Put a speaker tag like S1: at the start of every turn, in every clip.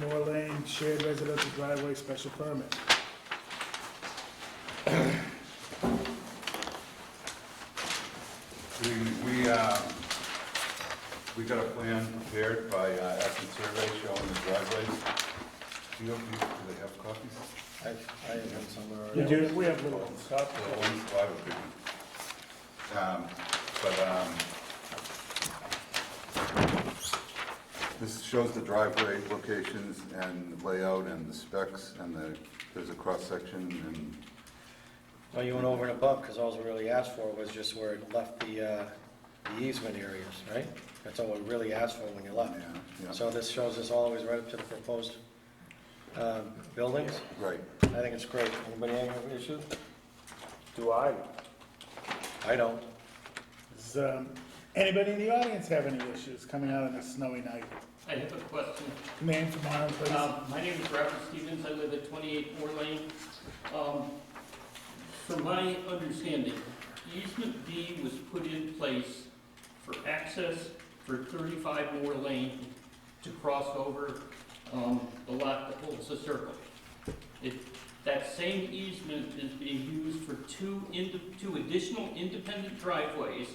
S1: Moore Lane Shared Residential Driveway Special Permit.
S2: We, we, uh, we got a plan prepared by uh, Acton Survey showing the driveways. Do you, do you- do they have copies?
S3: I, I have them somewhere.
S1: We
S3: already.
S1: do, we have little ones.
S2: The ones, well, I have a big one. Um, But, um, this shows the driveway locations and layout and the specs and the, there's a cross-section and
S3: Well, you went over and above, because all we really asked for was just where it left the, uh, the easement areas, right? That's all we really asked for when you left.
S2: Yeah, yeah.
S3: So this shows us all the way right up to the proposed, um, buildings.
S2: Right.
S3: I think it's great. Anybody have an issue?
S4: Do I?
S3: I don't.
S1: Does, um, anybody in the audience have any issues coming out on a snowy night?
S5: I have a question.
S1: Name from Marlon, please.
S5: Um, My name is Robert Stevens, I live at 28 Moore Lane. Um, From my understanding, easement B was put in place for access for 35 Moore Lane to cross over um, the lot that holds the circle. It- That same easement is being used for two, ind- two additional independent driveways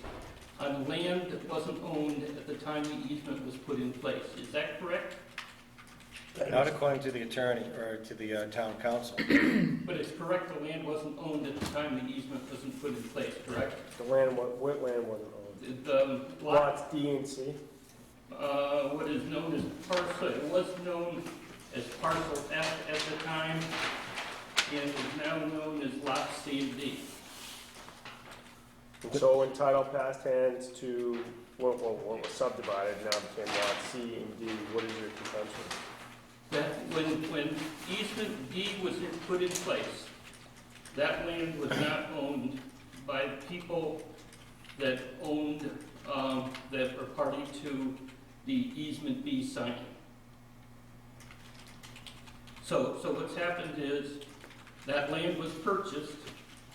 S5: on land that wasn't owned at the time the easement was put in place. Is that correct?
S3: Not according to the attorney, or to the, uh, town council.
S5: But it's correct, the land wasn't owned at the time the easement wasn't put in place, correct?
S4: The land, wa- wetland wasn't owned.
S5: The- The lot,
S4: Lots D and C.
S5: uh, what is known as parcel, it was known as parcel F at the time, and is now known as lot C and D.
S4: And so when title passed hands to, what, what, what was subdivided now became lot C and D, what is your contention?
S5: That, when, when easement D was in- put in place, that land was not owned by people that owned, um, that were party to the easement B signing. So, so what's happened is, that land was purchased,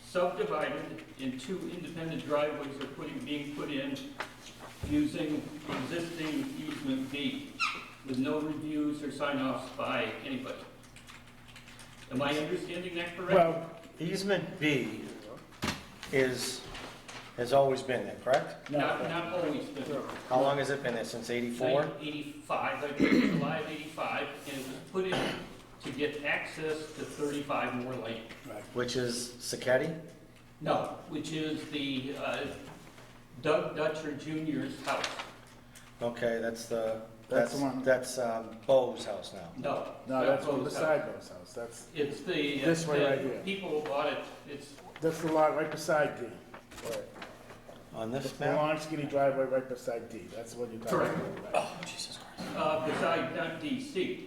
S5: subdivided, and two independent driveways are putting, being put in using existing easement B with no reviews or sign-offs by anybody. Am I understanding that correctly?
S1: Well,
S3: Easement B is, has always been there, correct?
S5: Not,
S1: no,
S5: not always, but
S3: How long has it been there, since eighty-four?
S5: 1985, I think, July of 85, and it was put in to get access to 35 more Lane.
S1: right.
S3: Which is Sacchetti?
S5: No, which is the uh, Doug Dutcher Jr.'s house.
S3: Okay, that's the,
S1: That's
S3: that's,
S1: the one.
S3: that's um, Bo's house now.
S5: No.
S1: No, that's one
S5: Bo's house.
S1: beside Bo's house, that's,
S5: It's the. uh,
S1: This way
S5: the
S1: right here.
S5: People who bought it, it's,
S1: that's the lot right beside D.
S3: On
S1: The
S3: this map?
S1: long skinny driveway right beside D, that's what you're talking about, right?
S3: Oh, Jesus Christ.
S5: uh, beside, not DC.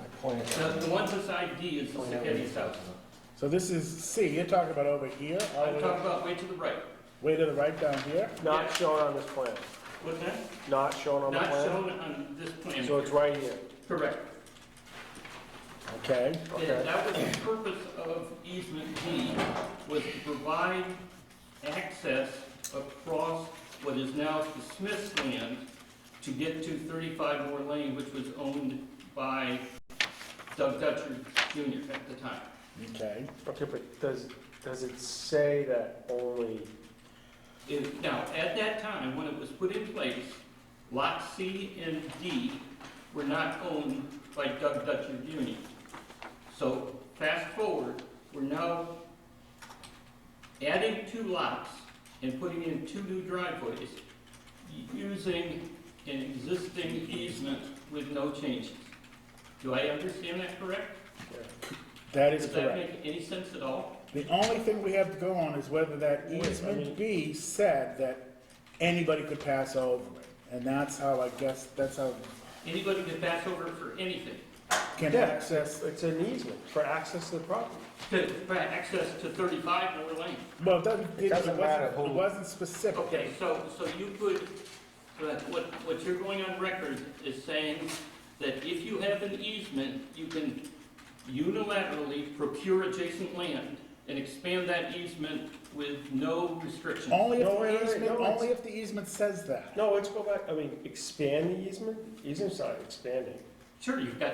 S3: I pointed
S5: The,
S3: that.
S5: the one beside D is the Sacchetti house.
S1: So this is C, you're talking about over here, all
S5: I'm
S1: the
S5: talking
S1: way,
S5: about way to the right.
S1: way to the right down here?
S4: Not shown on this plan,
S5: What's that?
S4: not shown on the
S5: Not
S4: plan?
S5: shown on this plan.
S4: So it's right here,
S5: Correct.
S1: Okay,
S5: And
S4: okay.
S5: that was the purpose of easement D, was to provide access across what is now the Smith's land to get to 35 Moore Lane, which was owned by Doug Dutcher Jr. at the time.
S1: okay.
S4: Okay, but does, does it say that only,
S5: It- Now, at that time, when it was put in place, Lot C and D were not owned by Doug Dutcher Jr. So fast forward, we're now adding two lots and putting in two new driveways using an existing easement with no changes. Do I understand that correct?
S1: That is
S5: Does that
S1: correct.
S5: make any sense at all?
S1: The only thing we have to go on is whether that
S4: Wait, I
S1: easement
S4: mean-
S1: B said that anybody could pass over it. And that's how, I guess, that's how
S5: Anybody could pass over for anything.
S1: can
S4: Yeah.
S1: access,
S4: it's an easement for access to the property?
S5: To, for access to 35 Moore Lane.
S1: well, it doesn't,
S3: It
S1: it
S3: doesn't matter
S1: wasn't, it
S3: who-
S1: wasn't specific.
S5: Okay, so, so you could, but what, what you're going on record is saying that if you have an easement, you can unilaterally procure adjacent land and expand that easement with no restrictions.
S1: Only if
S4: No, wait,
S1: the
S4: wait,
S1: easement,
S4: no, it's-
S1: only if the easement says that.
S4: No, let's go back, I mean, expand the easement, easement's not expanding.
S5: Sure, you've got